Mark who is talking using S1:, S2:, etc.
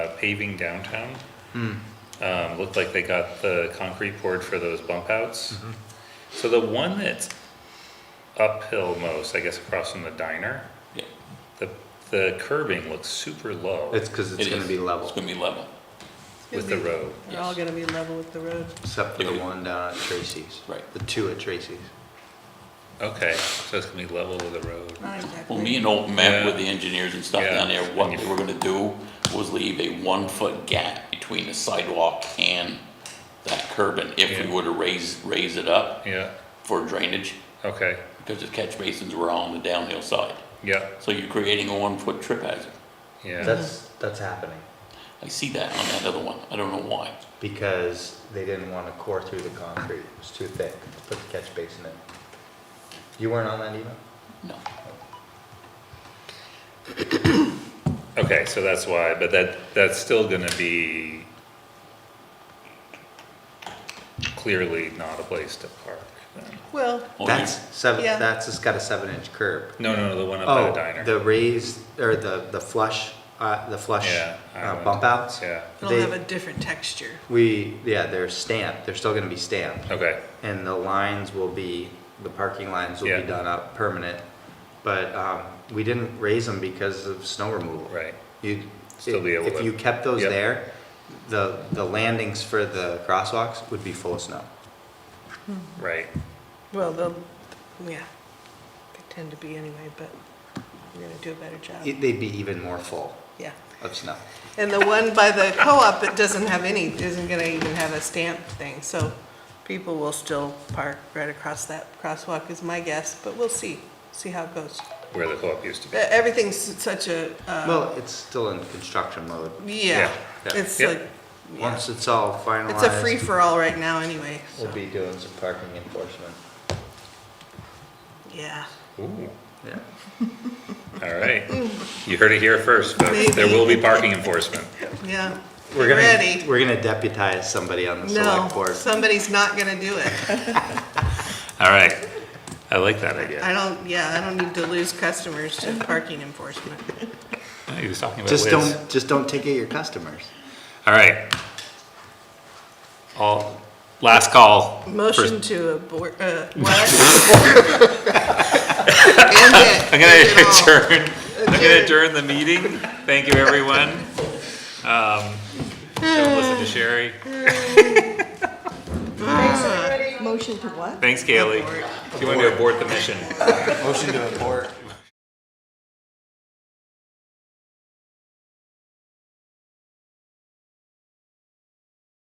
S1: uh, paving downtown. Um, looked like they got the concrete poured for those bump outs.
S2: Mm-hmm.
S1: So the one that's uphill most, I guess across from the diner,
S3: Yeah,
S1: the, the curbing looks super low
S2: It's because it's
S3: it
S2: gonna
S3: is.
S2: be
S3: It's
S2: level,
S3: gonna be level.
S1: with the road.
S4: They're all gonna be level with the road.
S2: except for the
S3: Yeah.
S2: one down at Tracy's.
S3: Right.
S2: The two at Tracy's.
S1: Okay, so it's gonna be level with the road.
S4: Not exactly.
S3: Well, me and Old met
S1: Yeah.
S3: with the engineers and stuff
S1: Yeah.
S3: down there, what they were gonna do was leave a one-foot gap between the sidewalk and that curbing, if
S1: Yeah.
S3: we were to raise, raise it up
S1: Yeah,
S3: for drainage,
S1: okay,
S3: because the catch basins were on the downhill side.
S1: yeah,
S3: So you're creating a one-foot trip hazard.
S1: yeah,
S2: That's, that's happening,
S3: I see that on that other one, I don't know why.
S2: because they didn't wanna core through the concrete, it was too thick, put the catch basin in. You weren't on that email?
S3: No,
S1: okay, so that's why, but that, that's still gonna be clearly not a place to park then.
S4: Well,
S3: Oh, yeah.
S2: That's seven,
S4: Yeah.
S2: that's, it's got a seven inch curb.
S1: No, no, no, the one up by the
S2: Oh,
S1: diner.
S2: the raised, or the, the flush, uh, the flush
S1: Yeah, I
S2: uh,
S1: went-
S2: bump outs?
S1: Yeah,
S4: it'll
S2: They-
S4: have a different texture.
S2: We, yeah, they're stamped, they're still gonna be stamped.
S1: okay,
S2: and the lines will be, the parking lines will
S1: Yeah.
S2: be done up permanent. But, um, we didn't raise them because of snow removal.
S1: right,
S2: You,
S1: Still be able
S2: if
S1: to-
S2: you kept those
S1: Yep.
S2: there, the, the landings for the crosswalks would be full of snow.
S1: right.
S4: Well, they'll, yeah, they tend to be anyway, but we're gonna do a better job.
S2: It- They'd be even more full
S4: Yeah.
S2: of snow.
S4: And the one by the co-op that doesn't have any, isn't gonna even have a stamp thing, so people will still park right across that crosswalk is my guess, but we'll see, see how it goes.
S1: Where the co-op used to
S4: E-
S1: be.
S4: Everything's such a, uh,
S2: Well, it's still in construction mode.
S4: yeah,
S2: yeah,
S4: it's
S1: yeah.
S4: like, yeah.
S2: Once it's all
S4: it's a
S2: finalized,
S4: free-for-all right now anyway, so,
S2: we'll be doing some parking enforcement.
S4: yeah.
S1: Ooh,
S2: Yeah.
S1: all right. You heard it here first, folks. There will be parking enforcement.
S4: Yeah.
S2: We're gonna,
S4: Ready.
S2: we're gonna deputize somebody on the select
S4: No,
S2: board.
S4: somebody's not gonna do it.
S1: All right, I like that
S4: I
S1: idea.
S4: don't, yeah, I don't need to lose customers to parking enforcement.
S1: He was talking about
S2: Just
S1: Liz.
S2: don't, just don't ticket your customers.
S1: All right. All, last call.
S4: Motion
S1: First-
S4: to abort, uh, what? End it.
S1: I'm
S4: End it
S1: gonna
S4: all.
S1: adjourn, I'm gonna
S4: Adjourn.
S1: adjourn the meeting. Thank you, everyone. Um, Don't listen to Sherry.
S5: Motion to what?
S1: Thanks, Kaylee. She wanted to abort the mission.
S2: Motion to abort.